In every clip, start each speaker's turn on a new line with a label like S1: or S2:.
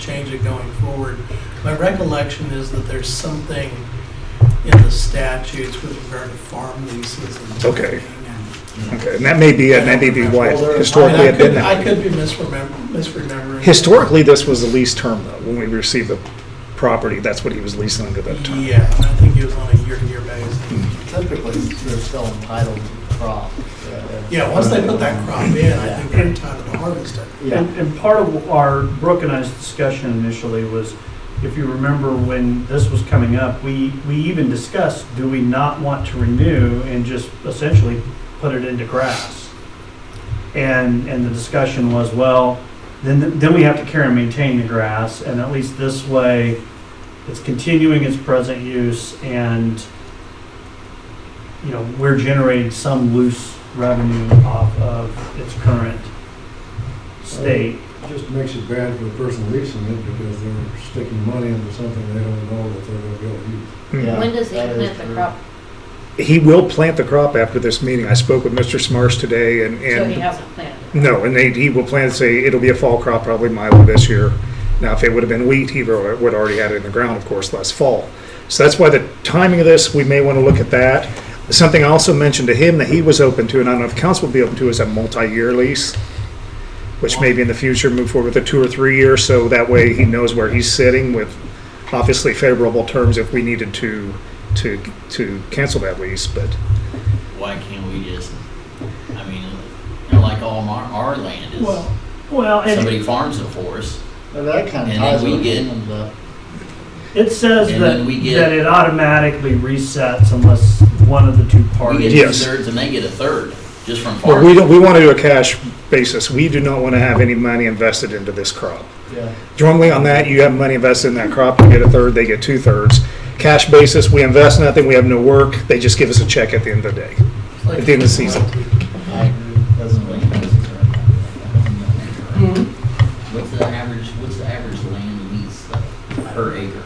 S1: change it going forward. My recollection is that there's something in the statutes with regard to farm leases and.
S2: Okay.
S1: and-
S2: Okay, and that may be, it. that may be why it historically
S1: I
S2: had been
S1: could, I
S2: that.
S1: could be misremembering, misremembering.
S2: Historically, this was the lease term though, when we received the property, that's what he was leasing under that term.
S1: Yeah, I think it was on a year-to-year basis.
S3: Typically, they're still entitled to the crop. uh,
S1: Yeah, once they put that crop in, I think they're entitled to harvest it.
S3: Yeah.
S4: And, and part of our, Brooke and I's discussion initially was, if you remember when this was coming up, we, we even discussed, do we not want to renew and just essentially put it into grass? And, and the discussion was, well, then, then we have to care and maintain the grass, and at least this way, it's continuing its present use and, you know, we're generating some loose revenue off of its current state.
S5: Just makes it bad for the person leasing it because they're sticking money into something they don't know that they're gonna be able to use.
S2: Mhm.
S6: When does he
S3: That is
S6: plant the
S3: true.
S6: crop?
S2: He will plant the crop after this meeting. I spoke with Mr. Smarsh today and,
S6: So
S2: and
S6: he hasn't planted. it.
S2: No, and they, he will plan to say, it'll be a fall crop, probably milo this year. Now, if it would have been wheat, he would would already had it in the ground, of course, last fall. So that's why the timing of this, we may want to look at that. Something I also mentioned to him that he was open to, and I don't know if council would be open to, is a multi-year lease, which maybe in the future move forward with a two or three year, so that way he knows where he's sitting with obviously favorable terms if we needed to, to, to cancel that lease, but
S7: why can't we just, I mean, you know, like all our, our land
S4: Well,
S7: is,
S4: well, and
S7: somebody farms it for us.
S3: But that kind of
S7: And then
S3: ties
S7: we
S3: with
S7: get-
S3: Kingdom's, uh,
S4: it says
S7: and
S4: that,
S7: then we get-
S4: that it automatically resets unless one of the two
S7: We get
S4: parties.
S7: two
S2: Yes.
S7: thirds and they get a third, just from
S2: Well, we
S7: farming.
S2: don't, we want to do a cash basis. We do not want to have any money invested into this crop.
S3: yeah.
S2: Normally on that, you have money invested in that crop, you get a third, they get two thirds. Cash basis, we invest nothing, we have no work, they just give us a check at the end of the day.
S1: It's like-
S2: At the end of the season.
S3: I
S7: Doesn't make no sense right now. What's the average, what's the average land lease though, per acre?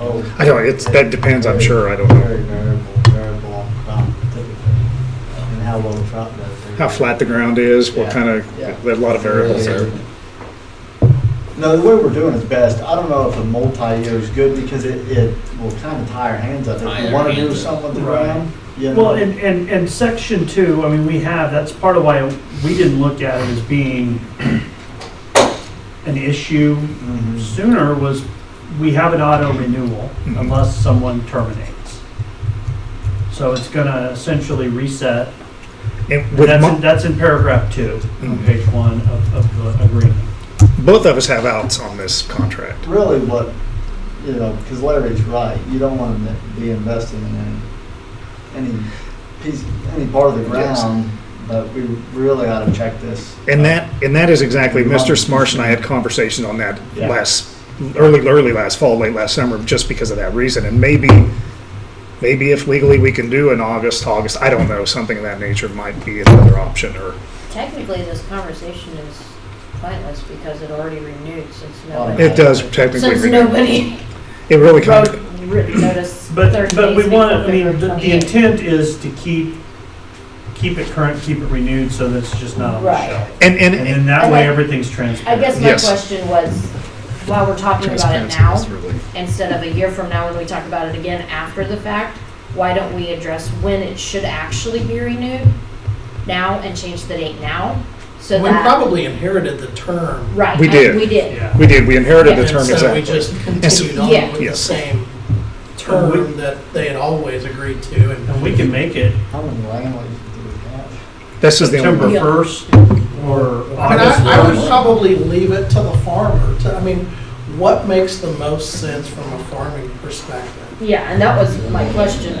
S3: Oh,
S2: I don't, it's, that depends, I'm sure, I don't know.
S3: Very variable, variable on crop typically, and how well the crop does.
S2: How flat the ground is, what kind of, there are a lot of variables there.
S3: No, the way we're doing is best. I don't know if a multi-year is good because it, it will kind of tie our hands up.
S7: Tie
S3: If you
S7: our
S3: want to do
S7: hands up.
S3: something with the
S4: Right.
S3: ground, you know.
S4: Well, and, and, and section two, I mean, we have, that's part of why we didn't look at it as being an issue
S3: Mhm.
S4: sooner was we have an auto renewal
S2: Mhm.
S4: unless someone terminates. So it's gonna essentially reset
S2: And with
S4: That's in,
S2: mo-
S4: that's in paragraph two, on
S2: Mhm.
S4: page one of, of the agreement.
S2: both of us have outs on this contract.
S3: really what, you know, because Larry's right, you don't want to be investing in any, any piece, any part of the
S2: Yes.
S3: ground, but we really ought to check this. Uh,
S2: And that, and that is exactly, Mr. Smarsh and I had conversations on that
S3: Yeah.
S2: last, early, early last fall, late last summer, just because of that reason. And maybe, maybe if legally we can do in August, August, I don't know, something of that nature might be another option or,
S6: Technically, this conversation is pointless because it already renewed since nobody.
S2: it does technically.
S6: Since
S2: renew.
S6: nobody
S2: It really kind
S6: wrote
S2: of,
S6: written notice thirty days
S4: But, but we want,
S6: before
S4: I mean, the,
S6: February
S4: the
S6: 28th.
S4: intent is to keep, keep it current, keep it renewed, so that it's just not on the
S6: Right.
S4: shelf.
S2: and, and,
S4: And then
S2: and
S4: that way,
S6: Okay.
S4: everything's
S6: I
S4: transparent.
S6: guess my
S2: Yes.
S6: question was, while we're talking about it
S2: transparency
S6: now,
S2: is really,
S6: instead of a year from now when we talk about it again after the fact, why don't we address when it should actually be renewed now and change the date now? So
S1: We
S6: that,
S1: probably inherited the term.
S6: right,
S2: We
S6: I-
S2: did.
S6: We did.
S4: Yeah.
S2: we did, we inherited the
S1: And
S2: term
S1: so we
S2: exactly.
S1: just continued on
S6: Yeah.
S1: with the
S2: Yes.
S1: same
S4: And
S1: term that they had always agreed to and.
S4: And we can make it
S3: How many land leases do we have?
S2: This is the
S4: September
S2: only,
S6: Yeah.
S4: first or
S1: I mean,
S4: August
S1: I, I would
S4: first.
S1: probably leave it to the farmer to, I mean, what makes the most sense from a farming perspective?
S6: Yeah, and that was, my question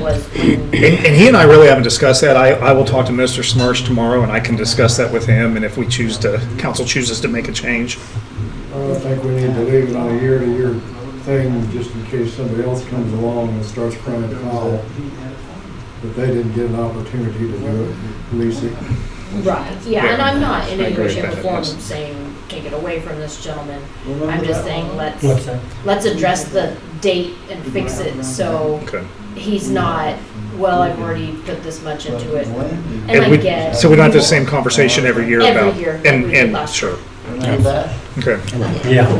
S6: was, when-
S2: and, and he and I really haven't discussed that. I, I will talk to Mr. Smarsh tomorrow and I can discuss that with him. And if we choose to, council chooses to make a change,
S5: I don't think we need to leave it on a year-to-year thing just in case somebody else comes along and starts crying foul that they didn't get an opportunity to do it, lease it.
S6: right, yeah, and I'm not in
S2: I
S6: any
S2: agree
S6: way,
S2: with
S6: shape or
S2: that,
S6: form
S2: yes.
S6: saying, take it away from this gentleman. I'm
S3: Remember
S6: just
S3: that
S6: saying,
S3: one?
S6: let's, let's address the date and fix it, so
S2: okay.
S6: he's not, well, I've already put this much into it.
S3: Land
S6: And
S2: It
S6: I
S2: would-
S6: get.
S2: So we don't have the same conversation every year
S6: Every
S2: about.
S6: year,
S2: and-
S6: like we did
S2: and-
S6: last
S2: Sure.
S3: use. Remember that?
S8: Okay.
S3: Yeah.